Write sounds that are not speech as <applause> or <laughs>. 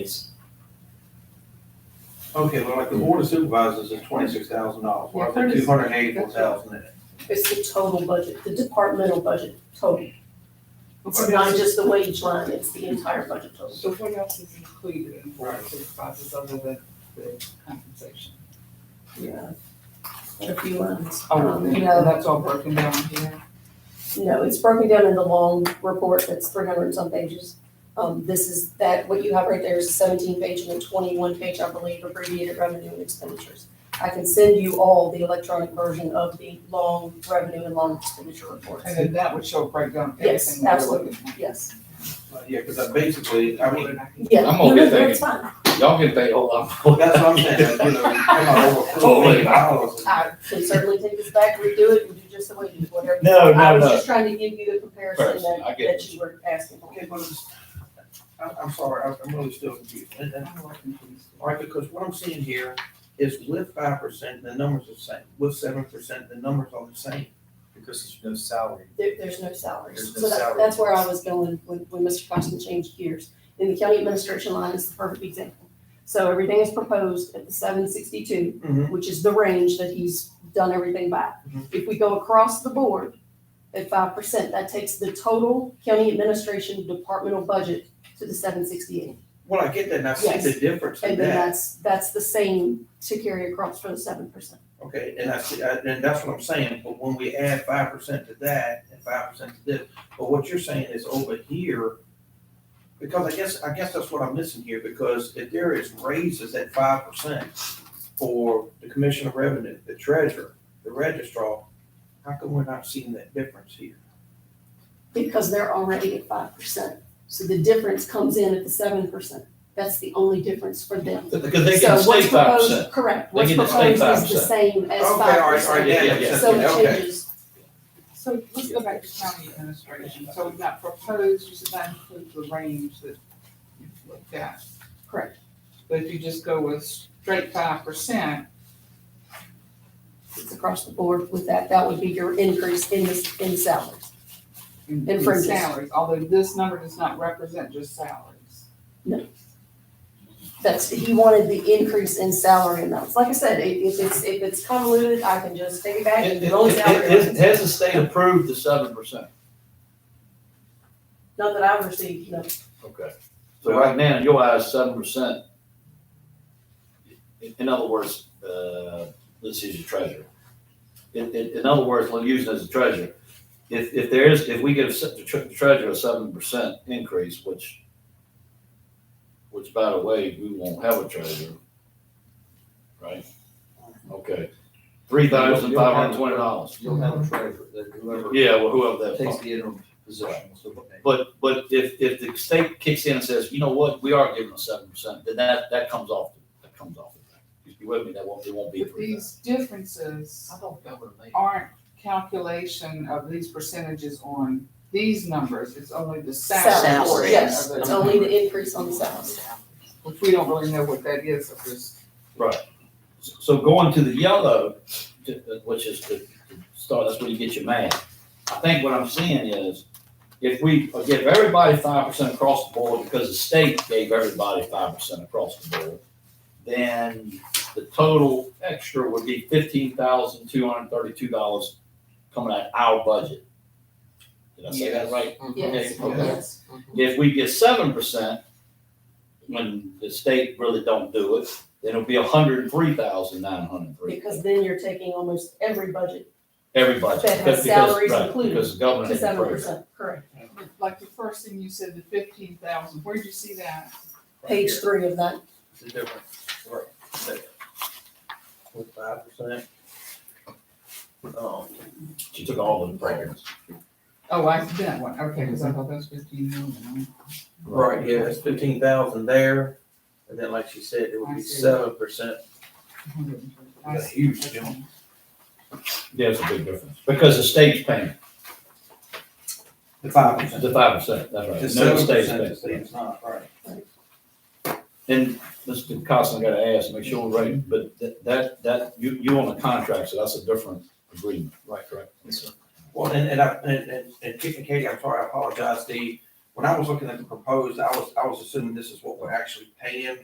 It's, Okay, well, like the board of supervisors is twenty-six thousand dollars, well, I Yeah, put thirty- two hundred and eighty-four thousand in it. It's the total budget, the departmental budget total. It's Okay. not just the wage line, it's the entire budget total. So what else is included in oh board Right. supervisors other than the compensation? Yeah. A few lines. Oh, you know, that's all broken down here. No, it's broken down in the long report that's three hundred and some pages. Um, this is, that, what you have right there is a seventeen page and a twenty-one page, I believe, abbreviated revenue and expenditures. I can send you all the electronic version of the long revenue and long expenditure reports. And then that would show a breakdown of Yes, everything that we're absolutely. looking at. Yes, Uh, Yeah, because I basically, I mean, yeah. I'm okay, No, no, thank It's fine. Y'all can think, oh, I'm. that's what I'm saying, <laughs> you know, come on, over four million dollars. I can certainly take this back, redo it, and do just the way you, whatever. No, I no, was no. just trying to give you the comparison Comparison, I that, get that it. you were asking for. Okay, but it's, I, I'm sorry, I'm- I'm really still confused. And- and- All right, because what I'm seeing here is with five percent, the numbers are the same, with seven percent, the numbers are the same. because there's no salary. There, there's no salaries. There's no So that, salary. that's where I was going when, when Mr. Costin changed gears. And the county administration line is the perfect example. So everything is proposed at the seven sixty-two, Mhm. which is the range that he's done everything by. Mhm. If we go across the board at five percent, that takes the total county administration departmental budget to the seven sixty-eight. Well, I get that, and I see the difference in And then that, that's, that's the same to carry across for the seven percent. okay, and I see, I- and that's what I'm saying, but when we add five percent to that and five percent to this, but what you're saying is over here, because I guess, I guess that's what I'm missing here, because if there is raises at five percent for the commissioner of revenue, the treasurer, the registrar, how come we're not seeing that difference here? because they're already at five percent. So the difference comes in at the seven percent. That's the only difference for them. Because they So can stay what's five proposed- percent. Correct, They what's can just stay proposed is the 5%. same as Okay, all five right, all right, percent. yeah, yeah, yeah, So it okay. changes, So let's go back to county administration. So we've got proposed, which does not include the range that you've looked at. correct. But if you just go with straight five percent, It's across the board with that. That would be your increase in this, in salaries. in And in fringes. salaries, although this number does not represent just salaries. That's, he wanted the increase in salary amounts. Like I said, i- if it's, if it's convoluted, I can just take it back and go with salary. Has, amounts. has the state approved the seven percent? Not that I've received, no. Okay. So right now, in your eyes, seven percent. In, in other words, uh, let's use your treasurer. In, in, in other words, we'll use it as a treasurer. If, if there is, if we give se- the tre- the treasurer a seven percent increase, which, which by the way, we won't have a treasurer. Right? Okay. Three thousand five hundred and twenty dollars. You'll have a treasurer, that whoever Yeah, well, whoever takes that. the interim position will still pay. But, but if, if the state kicks in and says, you know what, we are giving a seven percent, then that, that comes off, that comes off. the back. You be with me, that won't, it won't be But three thousand. these differences I don't think I would have made. aren't calculation of these percentages on these numbers, it's only the salary Salaries, portion yes. of It's it, only the increase on the salaries. which we don't really know what that is, if it's So going to the yellow, to- uh, which is the, the start, that's where you get your math. I think what I'm seeing is, if we give everybody five percent across the board, because the state gave everybody five percent across the board, then the total extra would be fifteen thousand two hundred thirty-two dollars coming out of our budget. Did I say that Yes. right? Yes, Okay. yes. If we get seven percent, when the state really don't do it, then it'll be a hundred and three thousand nine hundred and three. Because then you're taking almost every budget Everybody. That has because- salaries right, included Because the government to didn't seven approve it. percent, correct. But Like the first thing you said, the fifteen thousand, where'd you see that? Right Page here. three of that, the difference, right, there. With five percent. Um, She took all the programs. Oh, I see that one, okay, because I thought that was fifteen million. right, yeah, it's fifteen thousand there, and then like she said, it would I be see. seven percent. I see. huge There's a big difference, because the state's paying, The five the five percent, that's right. The Uh, No, seven state's percent paying. is it's not, right. And Mr. Costin, I gotta ask, make sure we're right, but that- that, that, you, you on a contract, so that's a different agreement. Right, correct. Well, and, and I, and, and, and Chief and Katie, I'm sorry, I apologize, the, when I was looking at the proposed, I was, I was assuming this is what we're actually paying